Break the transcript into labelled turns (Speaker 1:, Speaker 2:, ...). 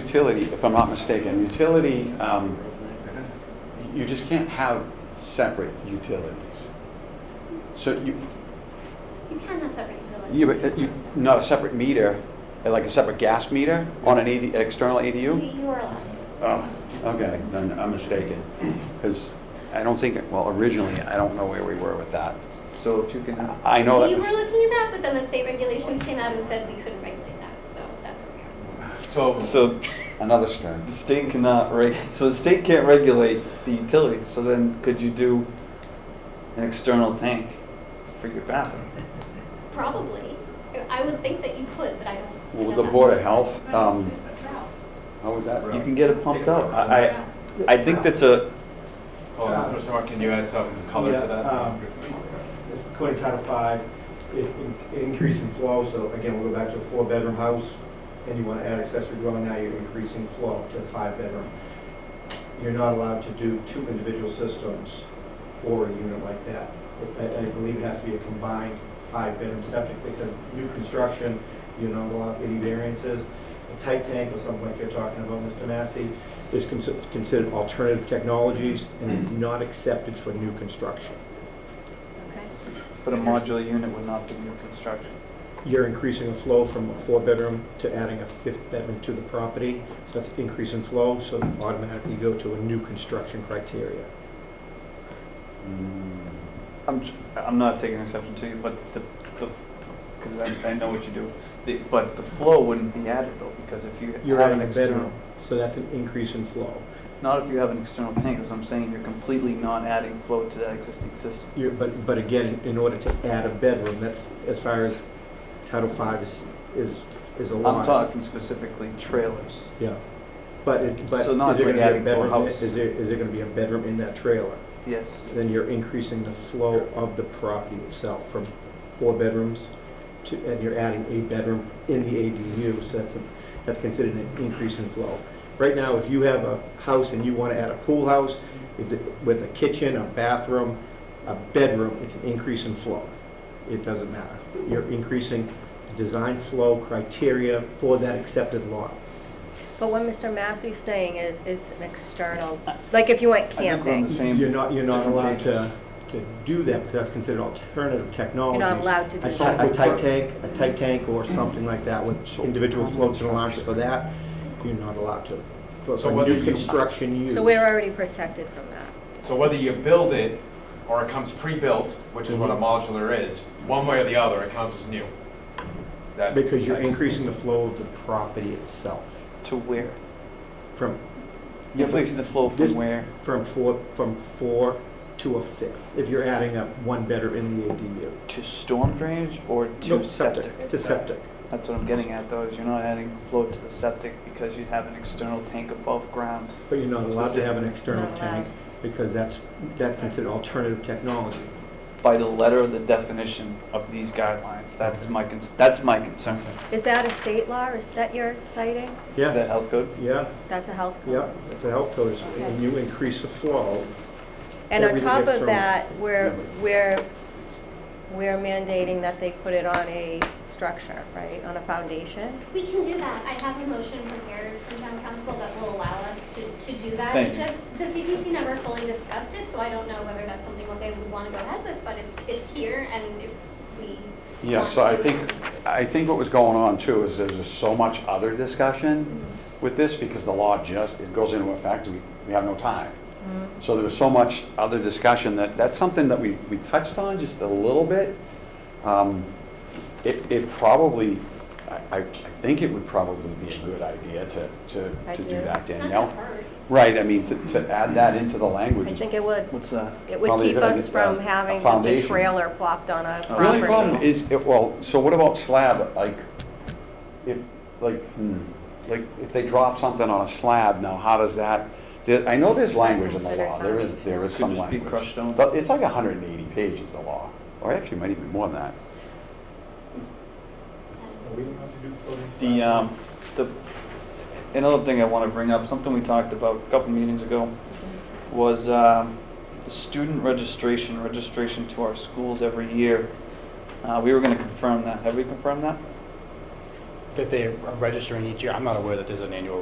Speaker 1: utility, if I'm not mistaken, utility, um, you just can't have separate utilities. So you,
Speaker 2: You can have separate utilities.
Speaker 1: you, you, not a separate meter, like a separate gas meter on an AD, external ADU?
Speaker 2: You are allowed to.
Speaker 1: Oh, okay, then I'm mistaken, because I don't think, well, originally, I don't know where we were with that.
Speaker 3: So if you can, uh,
Speaker 1: I know
Speaker 2: We
Speaker 1: that
Speaker 2: were
Speaker 1: was,
Speaker 2: looking at that, but then the state regulations came out and said we couldn't regulate that, so that's where we are.
Speaker 4: So,
Speaker 3: so
Speaker 1: another
Speaker 3: the
Speaker 1: strength.
Speaker 3: state cannot reg, so the state can't regulate the utilities, so then could you do an external tank for your bathroom?
Speaker 2: Probably. I would think that you could, but I don't.
Speaker 1: Well,
Speaker 2: I
Speaker 1: with the
Speaker 2: don't
Speaker 1: Board of
Speaker 2: know.
Speaker 1: Health, um,
Speaker 2: Wow.
Speaker 1: how would that?
Speaker 3: You can get it pumped up. I, I, I think that's a,
Speaker 4: oh, Mr. Sark, can you add some color
Speaker 5: Yeah,
Speaker 4: to that?
Speaker 5: um, According to Title Five, it it increase in flow, so again, we'll go back to a four-bedroom house, and you want to add accessory dwelling, now you're increasing flow to five-bedroom. You're not allowed to do two individual systems for a unit like that. I, I believe it has to be a combined five-bedroom septic, because new construction, you're not allowed any variances. A tight tank or something like you're talking about, Mr. Massey, is consi- considered alternative technologies and is not accepted for new construction.
Speaker 2: Okay.
Speaker 3: but a modular unit would not be new construction.
Speaker 5: You're increasing the flow from a four-bedroom to adding a fifth bedroom to the property, so that's increase in flow, so you automatically go to a new construction criteria.
Speaker 1: Mm.
Speaker 3: I'm, j- I'm not taking exception to you, but the, the, because I, I know what you do. The, but the flow wouldn't be added though, because if you
Speaker 5: You're
Speaker 3: have
Speaker 5: adding
Speaker 3: an
Speaker 5: a
Speaker 3: external,
Speaker 5: bedroom, so that's an increase in flow.
Speaker 3: not if you have an external tank, as I'm saying, you're completely not adding flow to that existing system.
Speaker 5: You're, but, but again, in order to add a bedroom, that's, as far as Title Five is, is, is a lot.
Speaker 3: I'm talking specifically trailers.
Speaker 5: Yeah, but it, but is
Speaker 3: So
Speaker 5: there
Speaker 3: not
Speaker 5: gonna be a
Speaker 3: really adding
Speaker 5: bedroom,
Speaker 3: to a house.
Speaker 5: is there, is there gonna be a bedroom in that trailer?
Speaker 3: Yes.
Speaker 5: Then you're increasing the flow of the property itself from four bedrooms to, and you're adding a bedroom in the ADU, so that's, a- that's considered an increase in flow. Right now, if you have a house and you wanna add a pool house, if it- with a kitchen, a bathroom, a bedroom, it's an increase in flow. It doesn't matter. You're increasing the design flow criteria for that accepted lot.
Speaker 6: But what Mr. Massey's saying is, it's an external, like if you went
Speaker 3: I think we're on the
Speaker 6: camping,
Speaker 3: same.
Speaker 5: You're not, you're not
Speaker 3: different
Speaker 5: allowed
Speaker 3: pages.
Speaker 5: to, to do that because that's considered alternative
Speaker 6: you're
Speaker 5: technology.
Speaker 6: not allowed to do
Speaker 5: A
Speaker 6: that.
Speaker 5: ti- a tight tank, a tight tank or something like that with
Speaker 1: So-
Speaker 5: individual floats and alarms for that, you're not allowed to. For
Speaker 4: So
Speaker 5: for
Speaker 4: whether
Speaker 5: new
Speaker 4: you-
Speaker 5: construction use.
Speaker 6: So we're already protected from that.
Speaker 4: So whether you build it or it comes pre-built, which is what a
Speaker 5: Mm-hmm.
Speaker 4: modular is, one way or the other, it counts as new. That-
Speaker 5: Because you're
Speaker 4: that-
Speaker 5: increasing the flow of the property itself
Speaker 3: To where?
Speaker 5: from,
Speaker 3: You're increasing the flow
Speaker 5: This-
Speaker 3: from where?
Speaker 5: from four, from four to a fifth, if you're adding a one better in the ADU.
Speaker 3: To storm drainage or
Speaker 5: No,
Speaker 3: to septic?
Speaker 5: To septic.
Speaker 3: That's what I'm getting at though, is you're not adding flow to the septic because you'd have an external tank above ground.
Speaker 5: But you're not allowed to have an external
Speaker 6: Not
Speaker 5: tank because that's, that's considered alternative technology.
Speaker 3: by the letter of the definition of these guidelines. That's my, cons- that's my concern.
Speaker 6: Is that a state law, or is that you're citing?
Speaker 3: Is that
Speaker 5: Yes,
Speaker 3: health code?
Speaker 5: yeah,
Speaker 6: That's a health code?
Speaker 5: yeah, it's a health code, it's- and you increase the flow.
Speaker 6: And on
Speaker 5: Everything
Speaker 6: top of
Speaker 5: external.
Speaker 6: that, we're, we're, we're mandating that they put it on a structure, right, on a foundation?
Speaker 2: We can do that. I have a motion prepared from town council that will allow us to, to do that.
Speaker 3: Thank
Speaker 2: It
Speaker 3: you.
Speaker 2: just, the CPC never fully discussed it, so I don't know whether that's something what they would want to go ahead with, but it's, it's here and if we.
Speaker 1: Yeah,
Speaker 2: want
Speaker 1: so I
Speaker 2: to-
Speaker 1: think, I think what was going on too is there was so much other discussion with this because the law just, it goes into effect, we, we have no time. So there was so much other discussion that, that's something that we, we touched on just a little bit. Um, It, it probably, I, I I think it would probably be a good idea to, to, to do
Speaker 6: Idea.
Speaker 1: that,
Speaker 2: It's not gonna
Speaker 1: Danielle.
Speaker 2: hurt.
Speaker 1: Right, I mean, to, to add that into the language
Speaker 6: I
Speaker 1: is
Speaker 6: think it would,
Speaker 3: What's that?
Speaker 6: it would
Speaker 1: Probably a
Speaker 6: keep
Speaker 1: good
Speaker 6: us
Speaker 1: idea,
Speaker 6: from
Speaker 1: uh, a
Speaker 6: having just a
Speaker 1: foundation.
Speaker 6: trailer plopped on a
Speaker 1: The
Speaker 3: The
Speaker 6: property.
Speaker 1: only problem is, it- well, so what about slab, like, if, like, hmm, like, if they drop something on a slab, now how does that? there- I know there's language in the law, there is, there is
Speaker 3: Could
Speaker 1: some
Speaker 3: just be
Speaker 1: language.
Speaker 3: crushed stone.
Speaker 1: But It's like hundred and eighty pages, the law, or actually might even more than that.
Speaker 3: The, um, the, another thing I want to bring up, something we talked about a couple meetings ago, was, um, the student registration, registration to our schools every year. Uh, we were going to confirm that. Have we confirmed that?
Speaker 7: that they are registering each year. I'm not aware that there's an annual